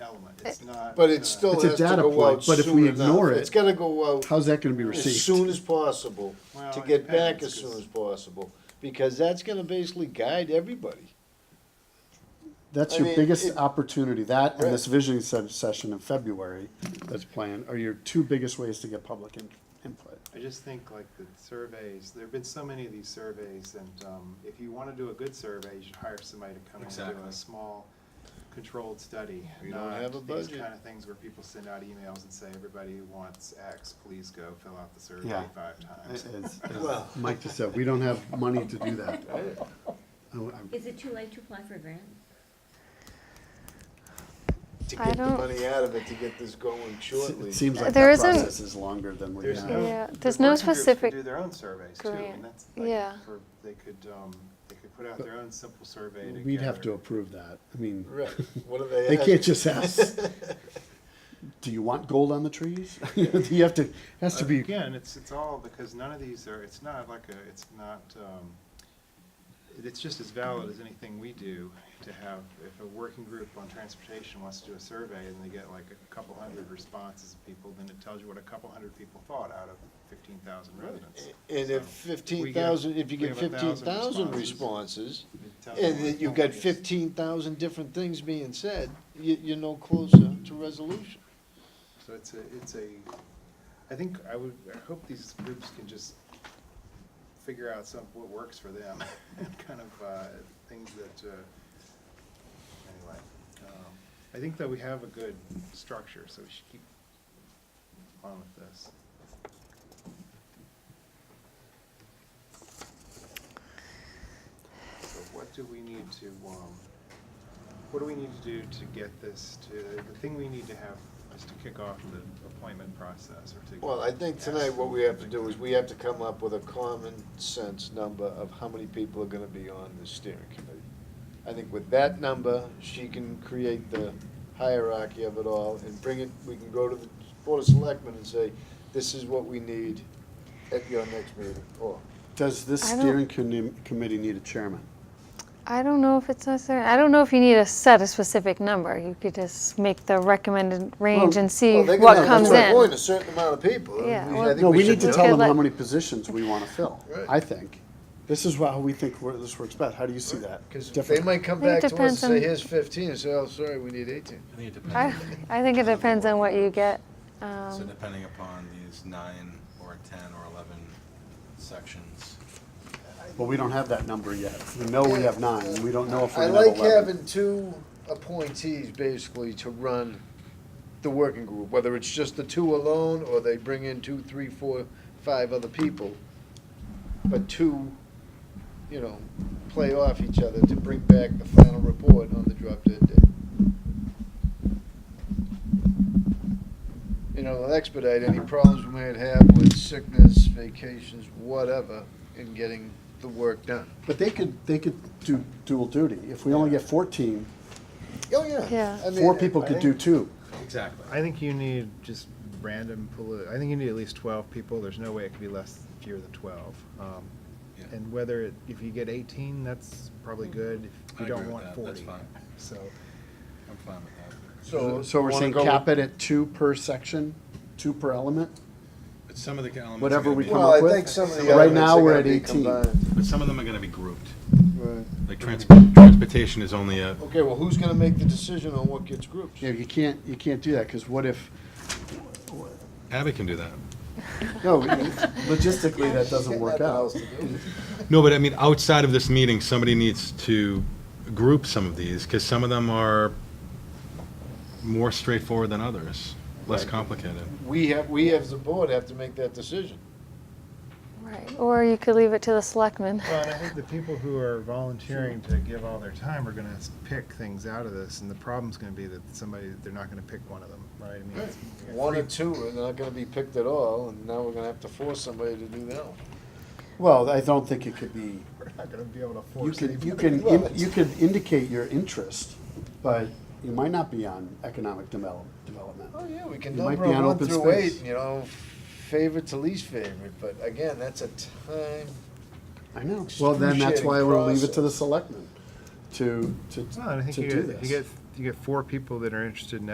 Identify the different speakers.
Speaker 1: element, it's not.
Speaker 2: But it
Speaker 1: uh,
Speaker 2: still
Speaker 3: It's a
Speaker 2: has to
Speaker 3: data
Speaker 2: go
Speaker 3: point,
Speaker 2: out
Speaker 3: but if we
Speaker 2: soon enough.
Speaker 3: ignore it,
Speaker 2: It's gotta go out
Speaker 3: How's that gonna be
Speaker 2: as soon
Speaker 3: received?
Speaker 2: as possible,
Speaker 1: Well,
Speaker 2: to
Speaker 1: it
Speaker 2: get back
Speaker 1: depends,
Speaker 2: as soon
Speaker 1: 'cause-
Speaker 2: as possible, because that's gonna basically guide everybody.
Speaker 3: That's
Speaker 2: I
Speaker 3: your
Speaker 2: mean,
Speaker 3: biggest
Speaker 2: it-
Speaker 3: opportunity, that and this visioning se- session in February that's planned are your two biggest ways to get public in- input.
Speaker 1: I just think like the surveys, there've been so many of these surveys, and, um, if you wanna do a good survey, you should hire somebody to come in and do
Speaker 4: Exactly.
Speaker 1: a small, controlled study.
Speaker 2: We don't
Speaker 1: not
Speaker 2: have a
Speaker 1: These
Speaker 2: budget.
Speaker 1: kinda things where people send out emails and say, everybody who wants X, please go fill out the survey
Speaker 3: Yeah.
Speaker 1: five times.
Speaker 3: As- as
Speaker 2: Well-
Speaker 3: Mike just said, we don't have money to do that. I- I-
Speaker 5: Is it too late to apply for a grant?
Speaker 2: To
Speaker 6: I
Speaker 2: get the
Speaker 6: don't-
Speaker 2: money out of it, to get this going shortly.
Speaker 3: It seems like
Speaker 6: There
Speaker 3: that
Speaker 6: isn't-
Speaker 3: process is longer than we
Speaker 1: There's
Speaker 3: have.
Speaker 1: no-
Speaker 6: Yeah,
Speaker 1: the
Speaker 6: there's no
Speaker 1: working groups could
Speaker 6: specific
Speaker 1: Do their own surveys too,
Speaker 6: grant.
Speaker 1: and that's
Speaker 6: Yeah.
Speaker 1: like, for, they could, um, they could put out their own simple survey to.
Speaker 3: We'd have to
Speaker 1: gather-
Speaker 3: approve that. I mean,
Speaker 2: Right, what do they
Speaker 3: they
Speaker 2: ask?
Speaker 3: can't just ask, do you want gold on the trees? You have to, has to be,
Speaker 1: Again, it's, it's all, because none of these are, it's not like a, it's not, um, it's just as valid as anything we do to have, if a working group on transportation wants to do a survey and they get like a couple hundred responses of people, then it tells you what a couple hundred people thought out of fifteen thousand residents.
Speaker 2: And if
Speaker 1: So,
Speaker 2: fifteen thousand, if you
Speaker 1: we
Speaker 2: get
Speaker 1: have a
Speaker 2: fifteen
Speaker 1: thousand
Speaker 2: thousand
Speaker 1: responses.
Speaker 2: responses,
Speaker 1: it tells you
Speaker 2: and
Speaker 1: what
Speaker 2: that you've
Speaker 1: the
Speaker 2: got
Speaker 1: point is.
Speaker 2: fifteen thousand different things being said, you, you're no closer to resolution.
Speaker 1: So it's a, it's a, I think, I would, I hope these groups can just figure out some, what works for them, and kind of, uh, things that, uh, anyway. um, I think that we have a good structure, so we should keep on with this. So what do we need to, um, what do we need to do to get this to, the thing we need to have is to kick off the appointment process or to.
Speaker 2: Well, I think tonight what we have to do is we have to come up with a common sense number of how many people are gonna be on the steering committee. I think with that number, she can create the hierarchy of it all and bring it, we can go to the board of selectmen and say, this is what we need at your next meeting, or
Speaker 3: does this
Speaker 6: I don't-
Speaker 3: steering commi- committee need a chairman?
Speaker 6: I don't know if it's necessary. I don't know if you need to set a specific number. You could just make the recommended range and see
Speaker 2: Well, they're
Speaker 6: what
Speaker 2: gonna-
Speaker 6: comes
Speaker 2: That's what I'm
Speaker 6: in.
Speaker 2: a certain amount of people.
Speaker 6: Yeah,
Speaker 2: and we- I
Speaker 6: well-
Speaker 2: think
Speaker 3: No, we
Speaker 2: should
Speaker 3: need to
Speaker 2: know.
Speaker 3: tell them how
Speaker 6: let-
Speaker 3: many positions we want to fill,
Speaker 2: Right.
Speaker 3: I think. This is wha- how we think wor- this works best. How do you see that?
Speaker 2: Because they
Speaker 3: Different.
Speaker 2: might come
Speaker 6: I think
Speaker 2: back to
Speaker 6: it
Speaker 2: us and
Speaker 6: depends
Speaker 2: say,
Speaker 6: on-
Speaker 2: here's fifteen, and say, oh, sorry, we need eighteen.
Speaker 4: I think it
Speaker 6: I,
Speaker 4: depends,
Speaker 6: I think it depends on what you get.
Speaker 4: so
Speaker 6: Um,
Speaker 4: depending upon these nine or ten or eleven sections.
Speaker 3: But we don't have that number yet. We know we have nine. We don't know if
Speaker 2: I
Speaker 3: we're gonna have
Speaker 2: like
Speaker 3: eleven.
Speaker 2: having two appointees basically to run the working group, whether it's just the two alone, or they bring in two, three, four, five other people. But two, you know, play off each other to bring back the final report on the drop dead date. You know, it'll expedite any problems we might have with sickness, vacations, whatever, in getting the work done.
Speaker 3: But they could, they could do dual duty. If we only get fourteen,
Speaker 2: Oh, yeah.
Speaker 6: Yeah.
Speaker 2: I mean,
Speaker 3: four people
Speaker 2: I
Speaker 3: could do
Speaker 2: think-
Speaker 3: two.
Speaker 4: Exactly.
Speaker 1: I think you need just random, poli- I think you need at least twelve people, there's no way it could be less, fewer than twelve. Um,
Speaker 4: Yeah.
Speaker 1: And whether, it- if you get eighteen, that's probably
Speaker 3: Hmm.
Speaker 1: good, if
Speaker 4: I
Speaker 1: you don't
Speaker 4: agree with
Speaker 1: want
Speaker 4: that. That's
Speaker 1: forty.
Speaker 4: fine.
Speaker 1: So,
Speaker 4: I'm fine with
Speaker 3: So so we're
Speaker 2: wanna
Speaker 3: saying
Speaker 2: go with-
Speaker 3: cap it at two per section, two per element?
Speaker 4: that. But some of the elements. are
Speaker 3: Whatever
Speaker 4: gonna
Speaker 3: we
Speaker 4: be-
Speaker 3: come
Speaker 2: Well,
Speaker 3: up
Speaker 2: I
Speaker 3: with?
Speaker 2: think some of the
Speaker 3: Right
Speaker 2: elements
Speaker 3: now,
Speaker 2: are
Speaker 3: we're
Speaker 2: gonna
Speaker 3: at
Speaker 2: be
Speaker 3: 18.
Speaker 2: combined.
Speaker 4: But some of them are gonna be grouped,
Speaker 2: Right.
Speaker 4: like transport, transportation is only a,
Speaker 2: Okay, well, who's gonna make the decision on what gets grouped?
Speaker 3: Yeah, you can't, you can't do that, because what if,
Speaker 4: Abby can do that.
Speaker 3: no, logistically, that doesn't work out.
Speaker 4: No, but I mean, outside of this meeting, somebody needs to group some of these, because some of them are more straightforward than others, less complicated.
Speaker 2: We have, we as the board have to make that decision.
Speaker 6: right. Or you could leave it to the selectmen.
Speaker 1: well, and I think the people who are volunteering to give all their time are gonna s- pick things out of this, and the problem's gonna be that somebody, they're not gonna pick one of them, right? I mean, it's-
Speaker 2: One or two are not gonna be picked at all, and now we're gonna have to force somebody to do that one.
Speaker 3: Well, I don't think it could be,
Speaker 1: we're not gonna be able to
Speaker 3: you
Speaker 1: force
Speaker 3: could,
Speaker 1: anybody.
Speaker 3: you can,
Speaker 2: Well,
Speaker 3: in- you could indicate your interest, but you might not be on economic develop- development.
Speaker 2: Oh, yeah, we can
Speaker 3: You might
Speaker 2: number
Speaker 3: be
Speaker 2: them
Speaker 3: on
Speaker 2: one
Speaker 3: open
Speaker 2: through
Speaker 3: space.
Speaker 2: eight, you know, favorite to least favorite, but again, that's a time.
Speaker 3: I know. Well, then that's why we'll leave it to the selectmen to, to,
Speaker 1: Well, and I think
Speaker 3: to
Speaker 1: you
Speaker 3: do
Speaker 1: get, you
Speaker 3: this.
Speaker 1: get, you get four people that are interested in